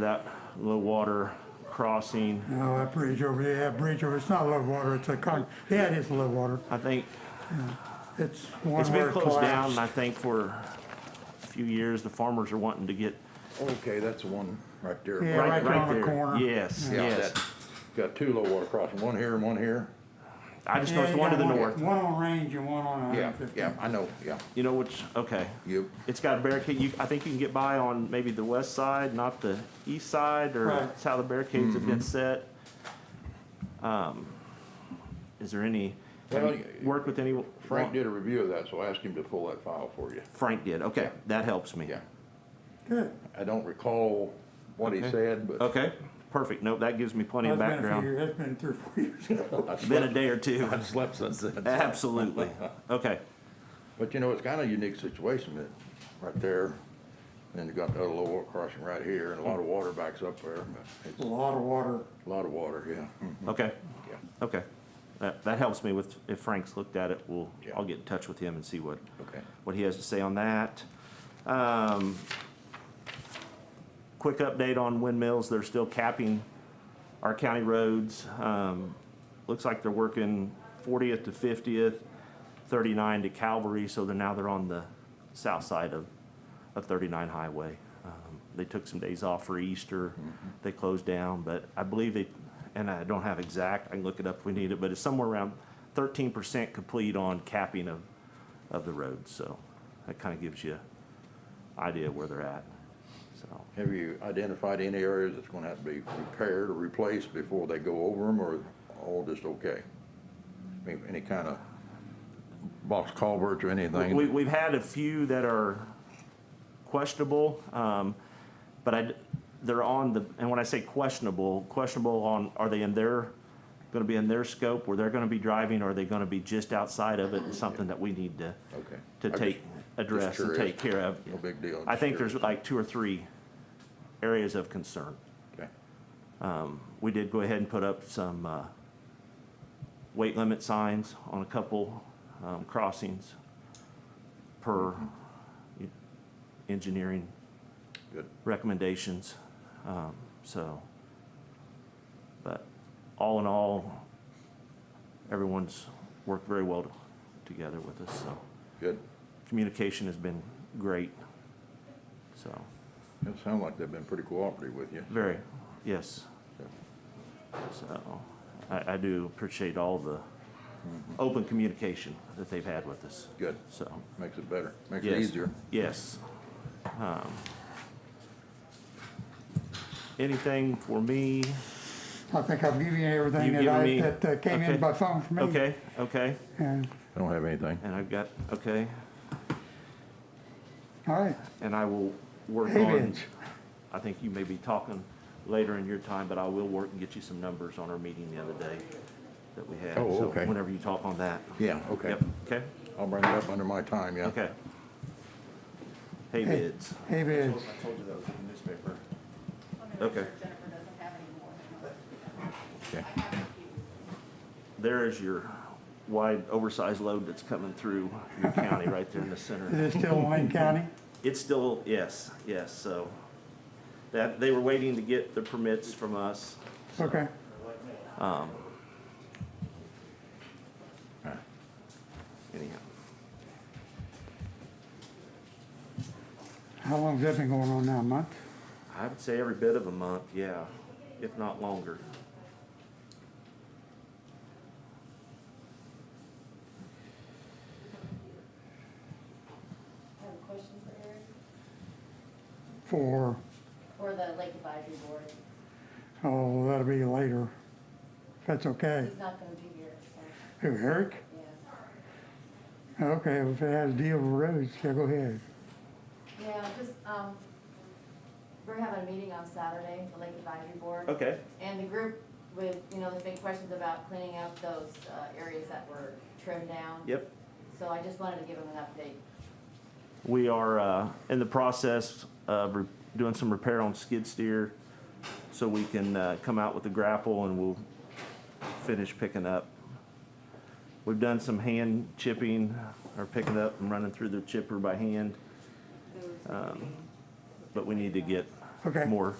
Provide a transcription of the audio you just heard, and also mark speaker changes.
Speaker 1: that low water crossing.
Speaker 2: No, that bridge over there, that bridge over, it's not low water, it's a con, yeah, it is low water.
Speaker 1: I think
Speaker 2: It's one
Speaker 1: it's been
Speaker 2: word
Speaker 1: closed down, and I
Speaker 2: collapse.
Speaker 1: think for a few years, the farmers are wanting to get
Speaker 3: Okay, that's the one right there.
Speaker 2: Yeah,
Speaker 1: right,
Speaker 2: right there
Speaker 1: right
Speaker 2: on the
Speaker 1: there.
Speaker 2: corner.
Speaker 1: Yes,
Speaker 3: Yeah,
Speaker 1: yes.
Speaker 3: that- Got two low water crossings, one here and one here.
Speaker 1: I just
Speaker 2: Yeah,
Speaker 1: noticed
Speaker 2: you
Speaker 1: one to
Speaker 2: got
Speaker 1: the north.
Speaker 2: One on Range and one on uh,
Speaker 3: Yeah,
Speaker 2: 150.
Speaker 3: yeah, I know, yeah.
Speaker 1: You know which, okay.
Speaker 3: Yep.
Speaker 1: It's got a barricade. You, I think you can get by on maybe the west side, not the east side, or
Speaker 2: Right.
Speaker 1: that's how the barricades have
Speaker 3: Mm-hmm.
Speaker 1: been set. Um, is there any, have
Speaker 3: Well,
Speaker 1: you worked with any?
Speaker 3: Frank did a review of that, so ask him to pull that file for you.
Speaker 1: Frank did, okay. That helps me.
Speaker 3: Yeah.
Speaker 2: Good,
Speaker 3: I don't recall what he
Speaker 1: Okay.
Speaker 3: said, but
Speaker 1: Okay, perfect. Nope, that gives me plenty
Speaker 2: that's
Speaker 1: of
Speaker 2: been a few
Speaker 1: background.
Speaker 2: years, that's been three, or four years ago.
Speaker 3: I
Speaker 1: Been a
Speaker 3: slept,
Speaker 1: day or two.
Speaker 3: I slept since then.
Speaker 1: Absolutely. Okay.
Speaker 3: But you know, it's kind of a unique situation that, right there, then you got the other low water crossing right here, and a lot of water backs up there, but
Speaker 2: A
Speaker 3: it's
Speaker 2: lot of water,
Speaker 3: a lot of water, yeah. Mhm,
Speaker 1: Okay.
Speaker 3: Yeah.
Speaker 1: Okay. That, that helps me with, if Frank's looked at it, we'll, I'll get in touch with him and see what,
Speaker 3: Okay.
Speaker 1: what he has to say on that. Um, quick update on windmills. They're still capping our county roads. Um, looks like they're working 40th to 50th, 39 to Calvary, so they're now they're on the south side of, of 39 Highway. Um, they took some days off for Easter. They closed down, but I believe they, and I don't have exact, I can look it up if we need it, but it's somewhere around 13% complete on capping of, of the road. So that kind of gives you idea where they're at. So.
Speaker 3: Have you identified any areas that's gonna have to be repaired or replaced before they go over them, or all just okay? I mean, any kind of box culverts or anything?
Speaker 1: We, we've had a few that are questionable, um, but I, they're on the, and when I say questionable, questionable on, are they in their, gonna be in their scope, where they're gonna be driving, or are they gonna be just outside of it, and something that we need to,
Speaker 3: Okay.
Speaker 1: to
Speaker 3: I'm
Speaker 1: take, address and
Speaker 3: curious.
Speaker 1: take care of?
Speaker 3: No big deal,
Speaker 1: I
Speaker 3: just
Speaker 1: think there's
Speaker 3: curious.
Speaker 1: like two or three areas of concern.
Speaker 3: Okay.
Speaker 1: We did go ahead and put up some, uh, weight limit signs on a couple, um, crossings per engineering
Speaker 3: Good.
Speaker 1: recommendations, um, so. But all in all, everyone's worked very well together with us, so
Speaker 3: Good.
Speaker 1: communication has been great, so,
Speaker 3: It sounds like they've been pretty cooperative with you.
Speaker 1: very, yes. So I, I do appreciate all the open communication that they've had with us.
Speaker 3: Good.
Speaker 1: So,
Speaker 3: Makes it better. Makes it
Speaker 1: yes.
Speaker 3: easier.
Speaker 1: Yes. Um, Anything for me?
Speaker 2: I think I've given you everything
Speaker 1: You've
Speaker 2: that
Speaker 1: given
Speaker 2: I,
Speaker 1: me-
Speaker 2: that uh, came
Speaker 1: okay.
Speaker 2: in by phone from me.
Speaker 1: Okay, okay,
Speaker 2: And,
Speaker 3: I don't have anything.
Speaker 1: and I've got, okay,
Speaker 2: all right,
Speaker 1: and I will work
Speaker 2: hay
Speaker 1: on,
Speaker 2: bids,
Speaker 1: I think you may be talking later in your time, but I will work and get you some numbers on our meeting the other day that we had.
Speaker 3: Oh,
Speaker 1: So
Speaker 3: okay.
Speaker 1: Whenever you talk on that.
Speaker 3: Yeah, okay.
Speaker 1: Yep, okay,
Speaker 3: I'll bring it up under my time, yeah.
Speaker 1: okay. Hay
Speaker 2: Hey.
Speaker 1: bids,
Speaker 2: hay bids.
Speaker 1: told you that was in the newspaper.
Speaker 4: I'm gonna make
Speaker 1: Okay.
Speaker 4: sure Jennifer doesn't have any more.
Speaker 3: Okay.
Speaker 4: I have a few.
Speaker 1: There is your wide oversized load that's coming through your county right there in the
Speaker 2: Is
Speaker 1: center.
Speaker 2: it still in Lane County?
Speaker 1: It's still, yes, yes, so that, they were waiting to get the permits from us.
Speaker 2: Okay,
Speaker 1: Anyhow,
Speaker 2: how long's that been going on now, a month?
Speaker 1: I would say every bit of a month, yeah, if not longer.
Speaker 4: I have a question for Eric,
Speaker 2: For,
Speaker 4: for the Lake Advisory Board.
Speaker 2: oh, that'll be later, if that's okay.
Speaker 4: He's not gonna be here, so,
Speaker 2: Who, Eric?
Speaker 4: yeah.
Speaker 2: Okay, if it has to deal with roads, yeah, go ahead.
Speaker 4: Yeah, just, um, we're having a meeting on Saturday, the Lake Advisory Board.
Speaker 1: Okay,
Speaker 4: And the group with, you know, there's been questions about cleaning up those, uh, areas that were trimmed down.
Speaker 1: yep.
Speaker 4: So I just wanted to give them an update.
Speaker 1: We are uh, in the process of re- doing some repair on skid steer so we can uh, come out with the grapple and we'll finish picking up. We've done some hand chipping or picking up and running through the chipper by hand, Um,
Speaker 4: Who's
Speaker 1: but we need to get
Speaker 2: Okay.
Speaker 1: more